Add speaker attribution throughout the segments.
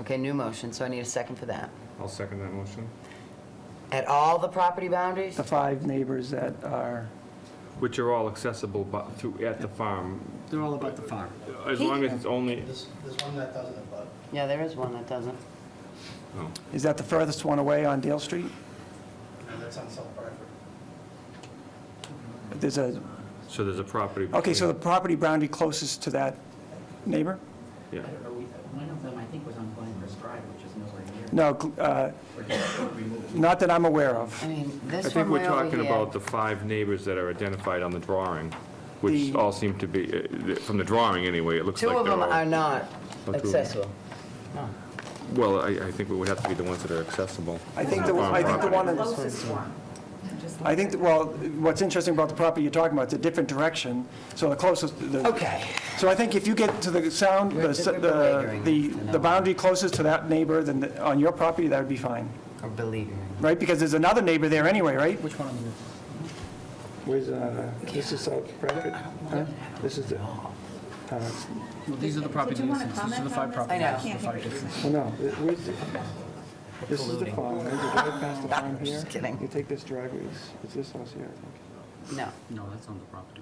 Speaker 1: Okay, new motion, so I need a second for that.
Speaker 2: I'll second that motion.
Speaker 1: At all the property boundaries?
Speaker 3: the five neighbors that are,
Speaker 2: Which are all accessible bu- through, at the farm,
Speaker 4: They're all about the farm.
Speaker 2: as long as it's only,
Speaker 5: There's, there's one that doesn't abut.
Speaker 1: Yeah, there is one that doesn't.
Speaker 2: no.
Speaker 3: is that the furthest one away on Dale Street?
Speaker 5: and that's on South Bradford.
Speaker 3: There's a,
Speaker 2: so there's a property.
Speaker 3: okay, so the property boundary closest to that neighbor?
Speaker 2: Yeah,
Speaker 6: I don't know, we- one of them, I think, was on Glenhurst Drive, which is nowhere near.
Speaker 3: No, cl- uh,
Speaker 6: Or just removed.
Speaker 3: not that I'm aware of.
Speaker 1: I mean,
Speaker 2: I
Speaker 1: this
Speaker 2: think
Speaker 1: one
Speaker 2: we're
Speaker 1: way over
Speaker 2: talking about
Speaker 1: here.
Speaker 2: the five neighbors that are identified on the drawing, which
Speaker 3: The-
Speaker 2: all seem to be, uh, from the drawing anyway, it looks
Speaker 1: Two
Speaker 2: like
Speaker 1: of
Speaker 2: they're
Speaker 1: them are
Speaker 2: all.
Speaker 1: not
Speaker 2: two of them.
Speaker 1: accessible. No.
Speaker 2: Well, I, I think it would have to be the ones that are accessible.
Speaker 3: I think the, I think the one, in-
Speaker 7: Closest one. Just
Speaker 3: I think, well, what's interesting about the property you're talking about, it's a different direction, so the closest, the.
Speaker 1: Okay.
Speaker 3: So I think if you get to the sound,
Speaker 1: We're-
Speaker 3: the, s-
Speaker 1: we're
Speaker 3: the,
Speaker 1: belaboring
Speaker 3: the-
Speaker 1: it, you know.
Speaker 3: the boundary closest to that neighbor, then the- on your property, that would be fine,
Speaker 1: Or beleaguering.
Speaker 3: right? Because there's another neighbor there anyway, right?
Speaker 4: Which one on the roof?
Speaker 8: Where's, uh, this is South Bradford? Huh? This is the, uh,
Speaker 4: Well, these are the property
Speaker 7: Did you wanna
Speaker 4: distances. These are the
Speaker 7: comment
Speaker 4: five
Speaker 7: on
Speaker 1: I
Speaker 7: this?
Speaker 4: property
Speaker 1: know.
Speaker 4: distances. the five distances.
Speaker 8: well, no, th- where's the, this is the farm, right? You drive past the farm here.
Speaker 1: Just kidding.
Speaker 8: You take this driveway, it's, it's this house here, I think.
Speaker 1: No.
Speaker 4: No, that's on the property.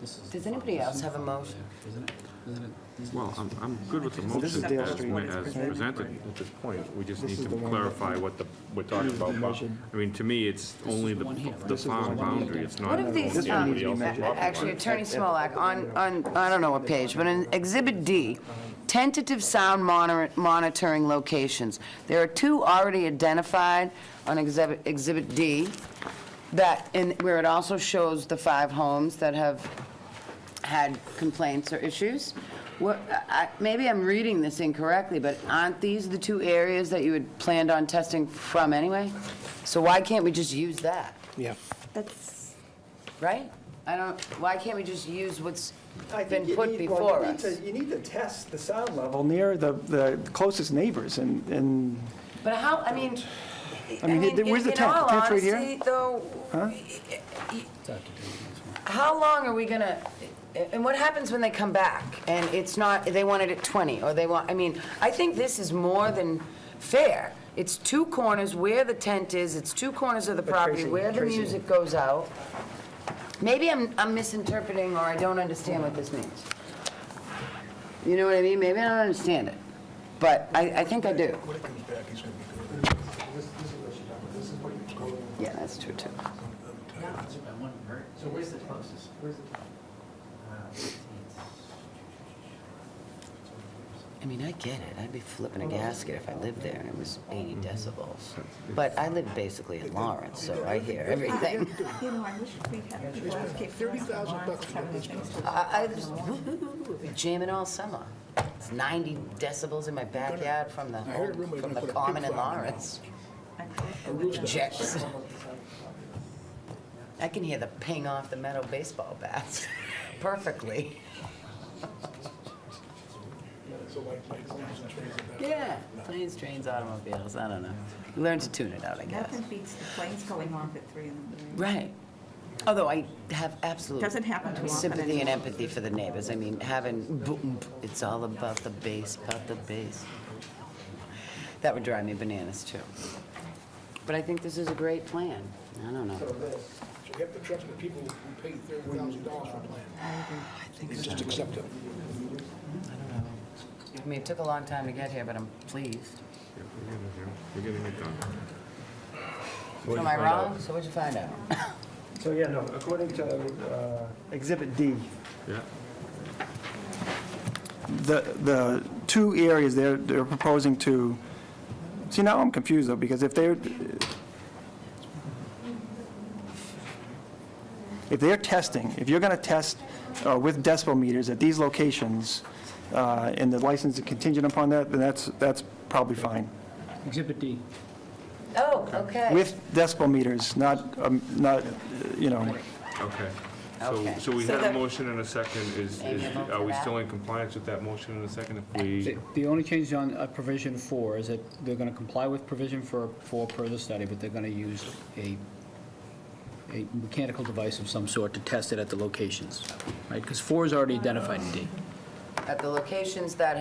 Speaker 4: This is the
Speaker 1: Does
Speaker 4: farm.
Speaker 1: anybody
Speaker 4: This
Speaker 1: else
Speaker 4: is
Speaker 1: have a
Speaker 4: the farm
Speaker 1: motion?
Speaker 4: there, Isn't it? Isn't it? These-
Speaker 2: Well, I'm, I'm good with the
Speaker 8: this is
Speaker 2: motion
Speaker 8: Dale
Speaker 2: as,
Speaker 8: Street.
Speaker 2: as presented at this point. We just
Speaker 8: This
Speaker 2: need
Speaker 8: is
Speaker 2: to
Speaker 8: the one that-
Speaker 2: clarify what the, we're talking about. Well, I mean, to me, it's
Speaker 4: is
Speaker 2: only
Speaker 4: the
Speaker 2: the,
Speaker 4: one here, right?
Speaker 2: the
Speaker 4: This is the
Speaker 8: one
Speaker 2: farm
Speaker 8: here.
Speaker 2: boundary. It's not
Speaker 1: What if these,
Speaker 2: the
Speaker 1: um,
Speaker 2: anybody else's property.
Speaker 1: a- actually, Attorney Smolak, on, on, I don't know what page, but in Exhibit D, tentative sound monitor- monitoring locations. There are two already identified on Exhibit, Exhibit D, that, and where it also shows the five homes that have had complaints or issues. What, I, maybe I'm reading this incorrectly, but aren't these the two areas that you had planned on testing from anyway? So why can't we just use that?
Speaker 8: Yeah.
Speaker 7: That's,
Speaker 1: Right? I don't, why can't we just use what's
Speaker 3: I
Speaker 1: been put before us?
Speaker 3: You need to test the sound level near the, the closest neighbors and, and
Speaker 1: But how, I mean, I
Speaker 3: I mean,
Speaker 1: mean, in
Speaker 3: where's the
Speaker 1: in
Speaker 3: tent? The
Speaker 1: all
Speaker 3: tent's right here?
Speaker 1: honesty, though,
Speaker 4: It's out to do with this one.
Speaker 1: how long are we gonna, and what happens when they come back? And it's not, they want it at 20, or they want, I mean, I think this is more than fair. It's two corners where the tent is, it's two corners of the property
Speaker 8: Tracy-
Speaker 1: where the
Speaker 8: Tracy-
Speaker 1: music goes out. Maybe I'm, I'm misinterpreting, or I don't understand what this means. You know what I mean? Maybe I don't understand it, but I, I think I do.
Speaker 9: When it comes back, he's gonna be good. This, this is what you're talking about, this is what you're calling.
Speaker 1: Yeah, that's true, too.
Speaker 6: Not much of a one, right? So where's the closest, where's the? Uh, it's-
Speaker 1: I mean, I get it. I'd be flipping a gasket if I lived there and it was 80
Speaker 9: Mm-hmm.
Speaker 1: decibels. But I live basically in Lawrence, so I hear everything.
Speaker 7: uh, you know, I wish we had people advocate for us
Speaker 9: 30,000
Speaker 7: on lawns
Speaker 9: bucks
Speaker 7: and
Speaker 9: for
Speaker 7: having
Speaker 9: this
Speaker 7: things to
Speaker 1: I, I just be jamming all summer. It's 90 decibels in my backyard from the,
Speaker 9: I heard a rumor you're
Speaker 1: from
Speaker 9: gonna
Speaker 1: the
Speaker 9: put a
Speaker 1: common
Speaker 9: pig
Speaker 1: in
Speaker 9: farm in
Speaker 1: Lawrence.
Speaker 9: A rooster.
Speaker 1: Jets. I can hear the ping off the metal baseball bats perfectly.
Speaker 9: So like, like, plants and trees and that.
Speaker 1: Yeah, planes, trains, automobiles, I don't know. Learn to tune it out, I guess.
Speaker 7: Nothing beats the planes going off at three in the morning.
Speaker 1: Right. Although I have absolute
Speaker 7: Doesn't happen too often
Speaker 1: sympathy and
Speaker 7: anymore.
Speaker 1: empathy for the neighbors. I mean, having, boom, boom, it's all about the bass, about the bass. That would drive me bananas, too. But I think this is a great plan. I don't know.
Speaker 9: So you have to trust the people who pay thirty thousand dollars for a plan. They just accept it.
Speaker 1: I mean, it took a long time to get here, but I'm pleased.
Speaker 2: Yeah, we're getting it, We're getting it done. So what'd
Speaker 1: Am
Speaker 2: you
Speaker 1: I
Speaker 2: find out?
Speaker 1: wrong? So what'd you find out?
Speaker 3: So, yeah, no, according to uh, Exhibit D,
Speaker 2: Yeah.
Speaker 3: the, the two areas they're, they're proposing to, see, now I'm confused, though, because if they're, if they're testing, if you're going to test uh, with decibel meters at these locations, uh, and the license is contingent upon that, then that's, that's probably fine.
Speaker 4: Exhibit D.
Speaker 1: Oh, okay.
Speaker 3: With decibel meters, not, um, not, uh, you know,
Speaker 2: Okay. So,
Speaker 1: Okay.
Speaker 2: so we
Speaker 1: So
Speaker 2: had a
Speaker 1: the-
Speaker 2: motion and a second. Is,
Speaker 1: Amy,
Speaker 2: is,
Speaker 1: a vote for
Speaker 2: are we
Speaker 1: that?
Speaker 2: still in compliance with that motion and a second if we?
Speaker 4: The- The only change on uh, provision four is that they're going to comply with provision for, for per the study, but they're going to use a, a mechanical device of some sort to test it at the locations, right? Because four is already identified in D.
Speaker 1: At the locations that